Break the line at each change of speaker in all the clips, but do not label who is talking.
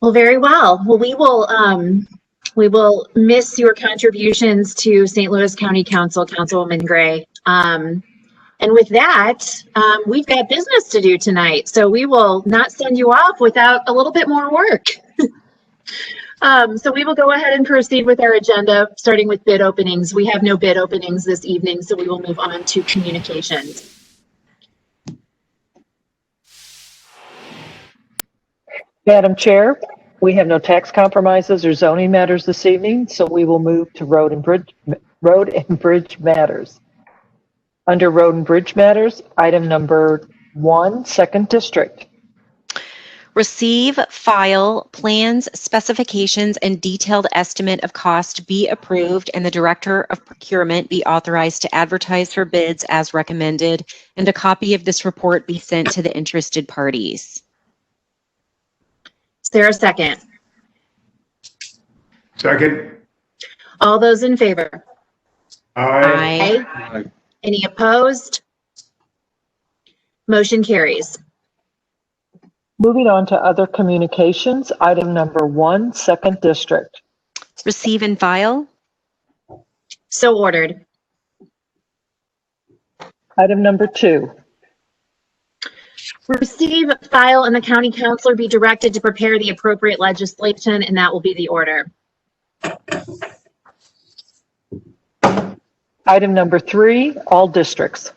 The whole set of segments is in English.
Well, very well. Well, we will, um, we will miss your contributions to St. Louis County Council, Councilwoman Gray. Um, and with that, um, we've got business to do tonight, so we will not send you off without a little bit more work. Um, so we will go ahead and proceed with our agenda, starting with bid openings. We have no bid openings this evening, so we will move on to communications.
Madam Chair, we have no tax compromises or zoning matters this evening, so we will move to road and bridge, road and bridge matters. Under road and bridge matters, item number one, second district.
Receive, file, plans, specifications, and detailed estimate of cost be approved, and the Director of Procurement be authorized to advertise for bids as recommended, and a copy of this report be sent to the interested parties.
Is there a second?
Second.
All those in favor?
Aye.
Aye.
Aye. Any opposed? Motion carries.
Moving on to other communications, item number one, second district.
Receive and file.
So ordered.
Item number two,
Receive, file, and the county counselor be directed to prepare the appropriate legislation, and that will be the order.
item number three, all districts.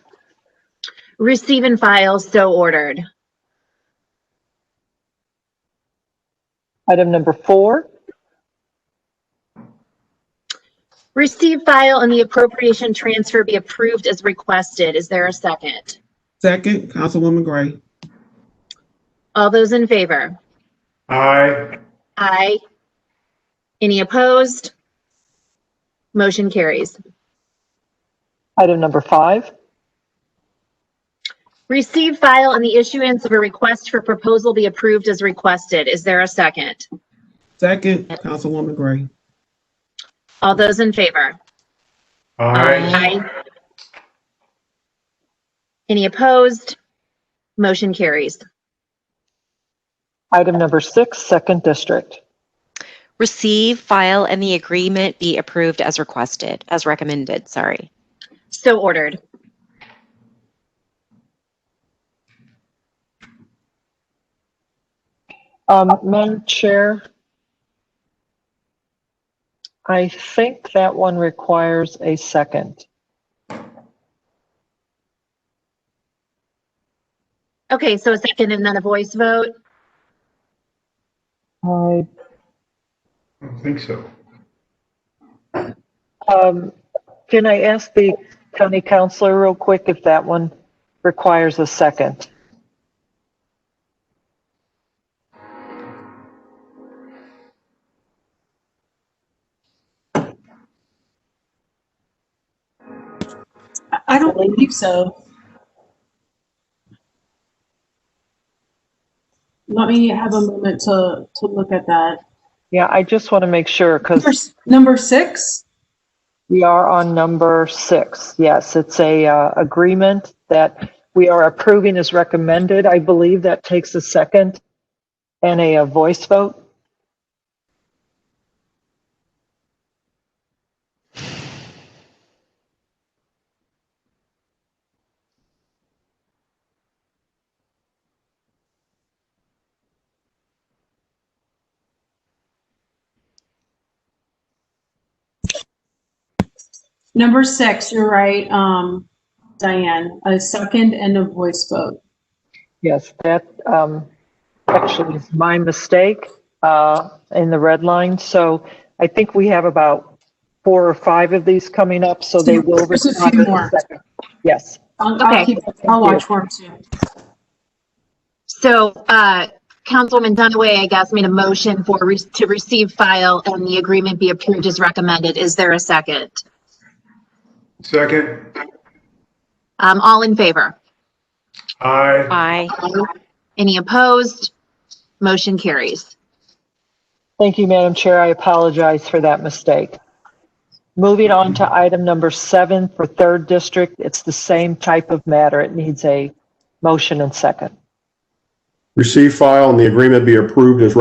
Receive and file, so ordered.
Item number four,
Receive, file, and the appropriation transfer be approved as requested. Is there a second?
Second, Councilwoman Gray.
All those in favor?
Aye.
Aye. Any opposed? Motion carries.
item number five,
Receive, file, and the issuance of a request for proposal be approved as requested. Is there a second?
Second, Councilwoman Gray.
All those in favor?
Aye.
Aye. Any opposed? Motion carries.
item number six, second district.
Receive, file, and the agreement be approved as requested, as recommended, sorry.
So ordered.
Um, Madam Chair, I think that one requires a second.
Okay, so a second and then a voice vote.
I,
I don't think so.
um, can I ask the county counselor real quick if that one requires a second?
I don't believe so. Let me have a moment to, to look at that.
Yeah, I just want to make sure
Number,
because
s- number six?
we are on number six. Yes, it's a, uh, agreement that we are approving as recommended. I believe that takes a second and a, a voice vote.
Number six, you're right, um, Diane, a second and a voice vote.
Yes, that um, actually is my mistake uh, in the red line. So I think we have about four or five of these coming up, so they will.
There's a few
respond in
more.
second. Yes,
I'll,
Okay.
I'll keep, I'll watch for him too.
So, uh, Councilwoman Dunaway, I guess, made a motion for, re- to receive file and the agreement be approved as recommended. Is there a second?
Second.
Um, all in favor?
Aye.
Aye.
Any opposed? Motion carries.
thank you, Madam Chair. I apologize for that mistake. Moving on to item number seven for third district, it's the same type of matter. It needs a motion and second.
Receive, file, and the agreement be approved as